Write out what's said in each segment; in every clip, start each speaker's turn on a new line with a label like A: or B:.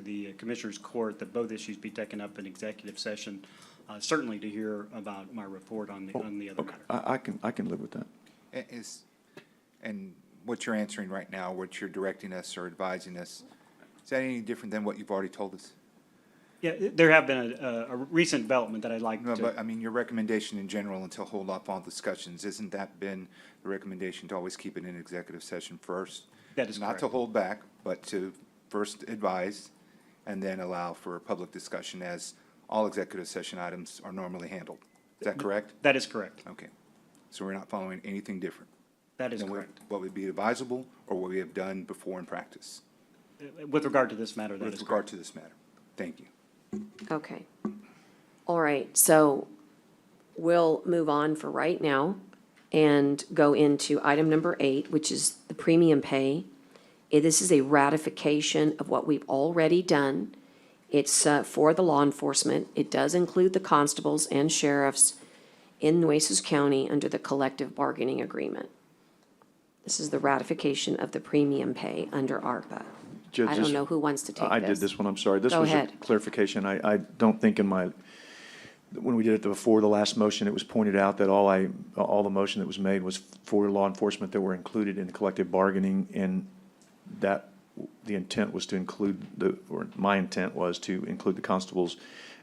A: the Commissioners Court that both issues be taken up in executive session, uh, certainly to hear about my report on the,
B: Oh,
A: on the other
C: Oh, Okay,
A: matter.
C: I, I can, I can live with that.
B: A- Is, and what you're answering right now, what you're directing us or advising us, is that any different than what you've already told us?
A: Yeah, it- there have been a, a- a recent development that I'd like
B: No, but, uh,
A: to,
B: I mean, your recommendation in general until hold off on discussions, isn't that been the recommendation to always keep it in executive session first?
A: That is
B: Not to
A: correct.
B: hold back, but to first advise and then allow for public discussion as all executive session items are normally handled. Is that correct?
A: that is correct.
B: Okay. So we're not following anything different?
A: That is
B: than what-
A: correct.
B: What would be advisable or what we have done before in practice
A: Uh, With regard to this matter, that
B: with
A: is correct.
B: regard to this matter? Thank you.
D: Okay. All right, so we'll move on for right now and go into item number eight, which is the premium pay. Eh, This is a ratification of what we've already done. It's uh, for the law enforcement. It does include the constables and sheriffs in Nueces County under the collective bargaining agreement. This is the ratification of the premium pay under ARPA.
C: Judge,
D: I don't
C: this-
D: know who wants to take this.
C: I did this one, I'm sorry. This
D: Go
C: was a
D: ahead.
C: clarification. I, I don't think in my, when we did it before the last motion, it was pointed out that all I, all the motion that was made was for law enforcement that were included in the collective bargaining, and that, the intent was to include the, or my intent was to include the constables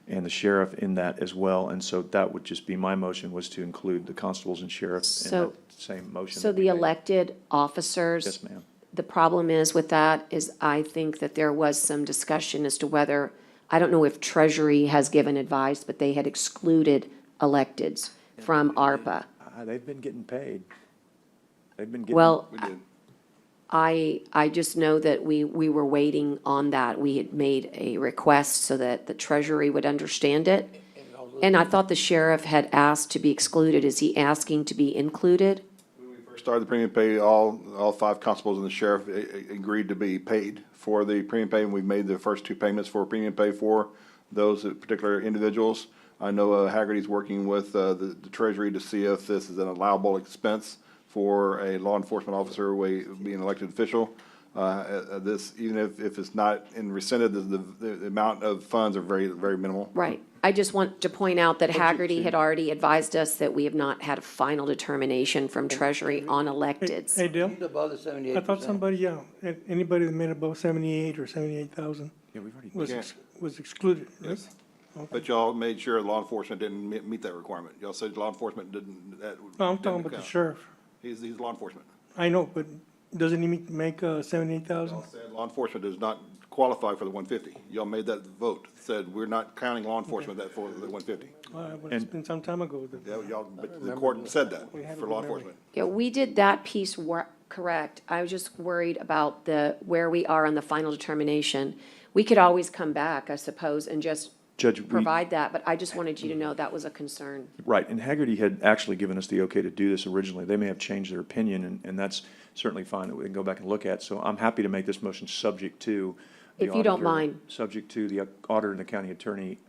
C: and the sheriff in that as well, and so that would just be, my motion was to include the constables and sheriff in
D: So-
C: that same motion.
D: So
C: that we
D: the
C: made.
D: elected officers?
C: Yes, ma'am.
D: The problem is with that is I think that there was some discussion as to whether, I don't know if Treasury has given advice, but they had excluded electeds from ARPA.
C: Ah, They've been getting paid. They've been getting.
D: Well, I, I just know that we, we were waiting on that. We had made a request so that the Treasury would understand it. And I thought the sheriff had asked to be excluded. Is he asking to be included?
E: Started the premium pay, all, all five constables and the sheriff a- a- agreed to be paid for the premium pay, and we've made the first two payments for premium pay for those particular individuals. I know uh, Haggerty's working with uh, the the Treasury to see if this is an allowable expense for a law enforcement officer, we, being elected official. Uh, uh, uh, This, even if, if it's not in rescinded, the, the the amount of funds are very, very minimal.
D: Right. I just want to point out that Haggerty had already advised us that we have not had a final determination from Treasury on electeds.
F: Hey, Dale,
G: Above the seventy-eight
F: I
G: percent.
F: thought somebody, yeah, an- anybody that made above seventy-eight or seventy-eight thousand was, ex- was excluded, right?
E: But y'all made sure law enforcement didn't me- meet that requirement. Y'all said law enforcement didn't, that.
F: No, I'm
E: didn't
F: talking about the
E: count.
F: sheriff.
E: He's, he's law enforcement.
F: I know, but doesn't he make- make, uh, seventy-eight thousand?
E: Y'all said law enforcement does not qualify for the one fifty. Y'all made that vote, said we're not counting law enforcement that for the one fifty.
F: Well, it's been some time ago that.
E: Y'all, but the court said that
F: have
E: for
F: a
E: law
F: good memory.
E: enforcement.
D: Yeah, we did that piece wor- correct. I was just worried about the, where we are on the final determination. We could always come back, I suppose, and just
C: Judge, we,
D: provide that, but I just wanted you to know that was a concern.
F: Mm-hmm.
C: right, and Haggerty had actually given us the okay to do this originally. They may have changed their opinion, and, and that's certainly fine that we can go back and look at. So I'm happy to make this motion subject to. the
D: If you don't
C: auditor-
D: mind.
C: Subject to the auditor and the county attorney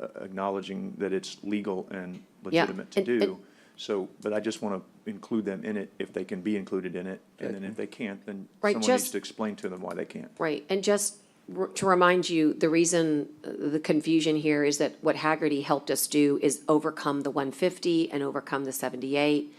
C: uh, acknowledging that it's legal and
D: Yeah,
C: legitimate to
D: and- and-
C: do. So, but I just want to include them in it if they can be included in it. And then if they can't, then
D: Right,
C: someone needs
D: just-
C: to explain to them why they can't.
D: Right, and just r- to remind you, the reason, uh, the confusion here is that what Haggerty helped us do is overcome the one fifty and overcome the seventy-eight.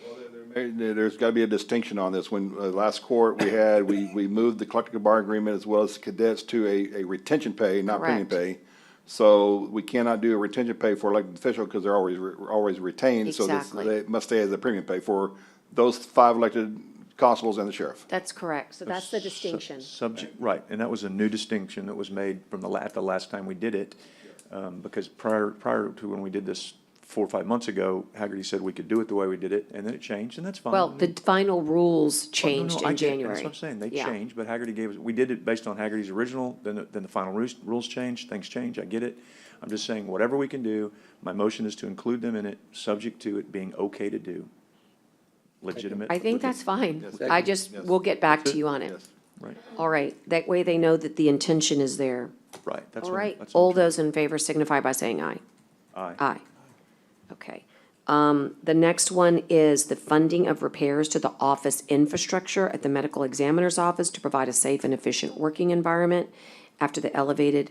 E: Hey, there- There's got to be a distinction on this. When uh, last court we had, we, we moved the collective bargaining agreement as well as cadets to a, a retention pay, not premium
D: Correct.
E: pay. So we cannot do a retention pay for elected official because they're always, re- always retained. So this-
D: Exactly.
E: they must stay as a premium pay for those five elected constables and the sheriff.
D: That's correct, so that's the
C: Sub-
D: distinction.
C: Subject, right, and that was a new distinction that was made from the la, the last time we did it. Um, because prior, prior to when we did this four or five months ago, Haggerty said we could do it the way we did it, and then it changed, and that's fine.
D: Well, the final rules
C: um, Oh, No, no, I
D: changed in
C: get it, and
D: January.
C: That's what I'm saying, they
D: Yeah.
C: changed, but Haggerty gave us, we did it based on Haggerty's original, then, the- then the final rules, rules changed, things change, I get it. I'm just saying, whatever we can do, my motion is to include them in it, subject to it being okay to do. Legitimate.
D: I think
C: legit-
D: that's fine.
E: Yes.
D: I just,
E: Yes.
D: we'll get back to you on it.
E: Yes.
C: Right,
D: All right, that way they know that the intention is there.
C: right, that's
D: All
C: what I'm-
D: right,
C: that's what I'm
D: all
C: trying-
D: those in favor signify by saying aye.
C: Aye.
D: Aye. Okay. Um, the next one is the funding of repairs to the office infrastructure at the medical examiner's office to provide a safe and efficient working environment after the elevated